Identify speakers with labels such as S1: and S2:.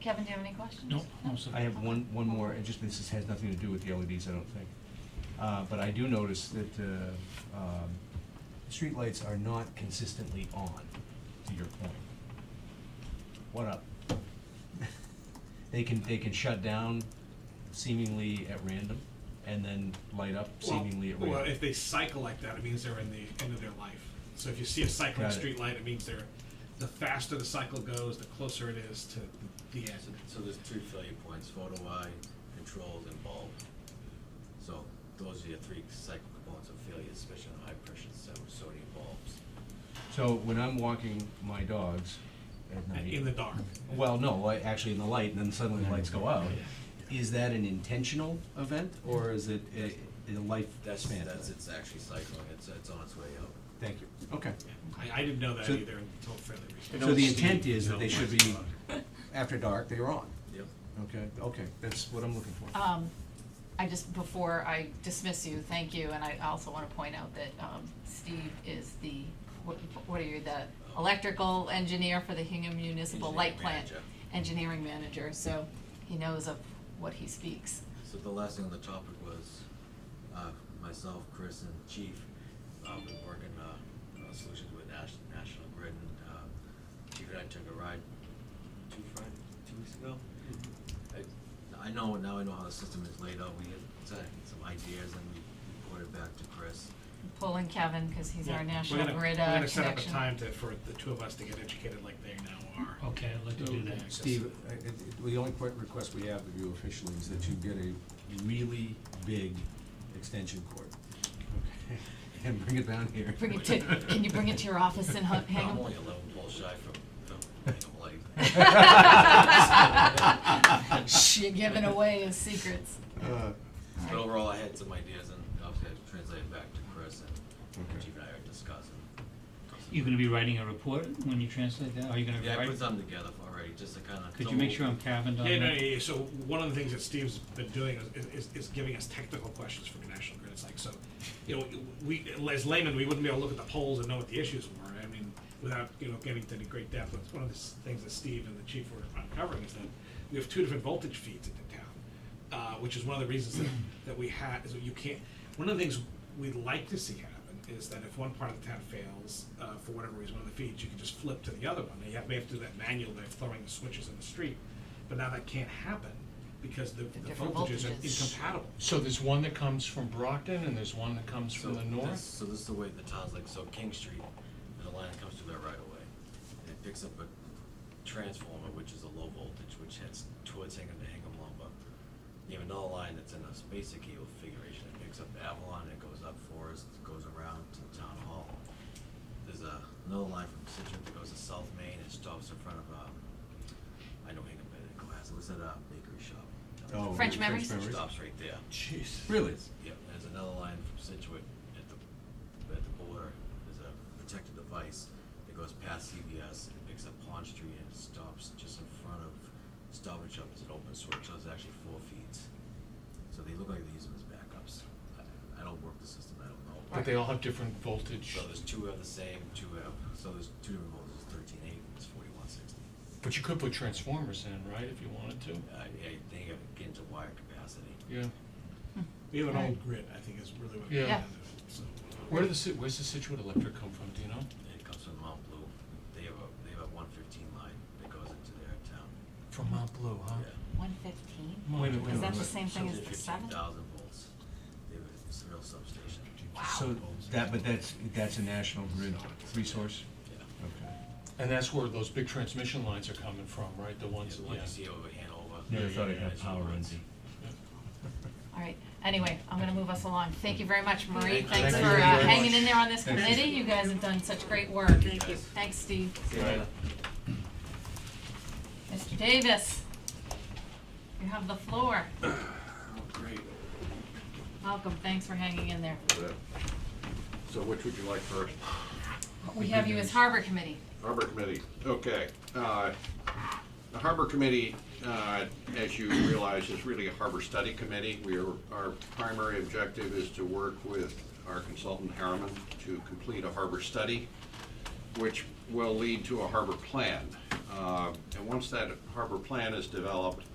S1: Kevin, do you have any questions?
S2: No, no, sir.
S3: I have one, one more, and just, this is- has nothing to do with the LEDs, I don't think. Uh, But I do notice that uh, um, streetlights are not consistently on, to your point. What up? They can, they can shut down seemingly at random, and then light up
S4: Well,
S3: seemingly at
S4: Well,
S3: random.
S4: if they cycle like that, it means they're in the end of their life. So if you see a cycling
S3: Got it.
S4: street light, it means they're, the faster the cycle goes, the closer it is to the end.
S5: So there's three failure points, photo eye, controls, and bulb. So those are your three cycle components of failure, especially on high pressure so- sodium bulbs.
S3: So when I'm walking my dogs at
S4: And
S3: night.
S4: In the dark.
S3: Well, no, like, actually in the light, and then suddenly the lights go out. Is that an intentional event, or is it a, a life
S5: That's,
S3: span?
S5: that's, it's actually cycling, it's, it's on its way out.
S3: Thank you. Okay.
S4: I, I didn't know that
S3: So-
S4: either until fairly recently.
S3: So the intent is that they should be, after dark, they're on.
S5: Yep.
S3: Okay, okay, that's what I'm looking for.
S1: Um, I just, before I dismiss you, thank you, and I also wanna point out that, um, Steve is the, what, what are you, the electrical engineer for the Hingham Municipal Light
S5: Engineering
S1: Plant?
S5: manager.
S1: Engineering manager, so he knows of what he speaks.
S5: So the last thing on the topic was, uh, myself, Chris, and Chief, uh, been working, uh, uh, solutions with Nash- National Grid, and, uh, Chief and I took a ride two Friday, two weeks ago. I, I know, now I know how the system is laid out, we had some some ideas, and we reported back to Chris.
S1: Pulling Kevin, cause he's our
S4: Yeah. We're
S1: national
S4: gonna-
S1: grid, uh,
S4: We're
S1: connection.
S4: gonna set up a time to, for the two of us to get educated like they now
S3: Oh,
S4: are.
S2: Okay, I'd like to do that.
S3: Steve, I- it- it- the only que- request we have of you officially is that you get a really big extension cord. Okay. And bring it down here.
S1: Bring it to, can you bring it to your office in Hu-
S5: I'm
S1: Hingham?
S5: only eleven poles shy from, from, from
S3: Uh,
S1: You're giving away his secrets.
S3: Uh,
S5: But overall, I had some ideas, and obviously I translated back to Chris, and
S3: Okay.
S5: Chief and I are discussing.
S2: You're gonna be writing a report when you translate that? Are you gonna
S5: Yeah, I
S2: write?
S5: put something together already, just to kinda.
S2: Could
S5: so
S2: you make sure I'm cabined on that?
S4: Yeah, no, yeah, yeah. So one of the things that Steve's been doing is, is, is giving us technical questions for the National Grid. It's like, so, you know, we, as laymen, we wouldn't be able to look at the polls and know what the issues were. I mean, without, you know, getting to any great depth. But one of the s- things that Steve and the chief were uncovering is that we have two different voltage feeds in the town, uh, which is one of the reasons that, that we had, is that you can't, one of the things we'd like to see happen is that if one part of the town fails, uh, for whatever reason, one of the feeds, you can just flip to the other one. You have, we have to do that manually by throwing the switches in the street, but now that can't happen because the, the
S1: different
S4: voltages are
S1: voltages.
S4: incompatible.
S6: So there's one that comes from Brockton and there's one that comes from the
S5: this-
S6: north?
S5: So this is the way the town's like, so King Street, there's a line that comes through there right away. And it picks up a transformer, which is a low voltage, which heads towards Hingham to Hingham Lumber. You have another line that's in a space cable configuration, it picks up Avalon, it goes up Forest, it goes around to Town Hall. There's a, another line from Citrus that goes to South Main, it stops in front of, um, I know Hingham, but it goes, it was at a bakery shop.
S3: oh,
S1: French memories?
S5: It stops right there.
S3: Jeez. Really?
S5: Yeah, there's another line from Situate at the, at the border, there's a protected device that goes past CVS and picks up Pond Street and stops just in front of Stop and Shop, it's an open source, so it's actually four feeds. So they look like they use them as backups. I- I don't work the system, I don't know.
S6: But they all have different voltage.
S5: So there's two of the same, two of, so there's two different ones, it's thirteen eight, it's forty-one sixty.
S6: But you could put transformers in, right, if you wanted to?
S5: I, I think I get into wire capacity.
S6: Yeah.
S4: We have an
S1: Right.
S4: old grid, I think is really what.
S1: Yeah.
S6: Yeah.
S4: So, uh,
S6: Where does the, Sit- where's the Situate electric come from, do you know?
S5: It comes from Mount Blue, they have a, they have a one fifteen line that goes into their town,
S6: From Mount Blue, huh?
S5: yeah.
S1: One fifteen?
S6: Wait a minute, wait a
S1: Is that the
S6: minute.
S1: same thing as the
S5: Fifteen
S1: seven?
S5: thousand volts. They have a s- real substation.
S3: So that, but that's, that's a national grid resource?
S5: Yeah.
S3: Okay.
S6: And that's where those big transmission lines are coming from, right, the
S5: Once,
S6: ones,
S5: the one you
S6: yeah.
S5: see over Hanover.
S3: Never thought it had
S5: it's
S3: power
S5: runs.
S3: runs.
S1: All right, anyway, I'm gonna move us along. Thank you very much, Marie.
S5: Thank you.
S1: Thanks
S5: Thank
S1: for
S5: you
S1: uh,
S5: very much.
S1: hanging in there on this
S3: Thanks.
S1: committee. You guys have done such great work.
S5: Thank you.
S1: Thanks, Steve.
S5: Yeah.
S1: Mr. Davis, you have the floor.
S7: Oh, great.
S1: Welcome, thanks for hanging in there.
S7: So which would you like first?
S1: We have you as Harbor Committee.
S7: Harbor Committee, okay. Uh, The Harbor Committee, uh, as you realize, is really a harbor study committee. We are, our primary objective is to work with our consultant Harriman to complete a harbor study, which will lead to a harbor plan. Uh, And once that harbor plan is developed,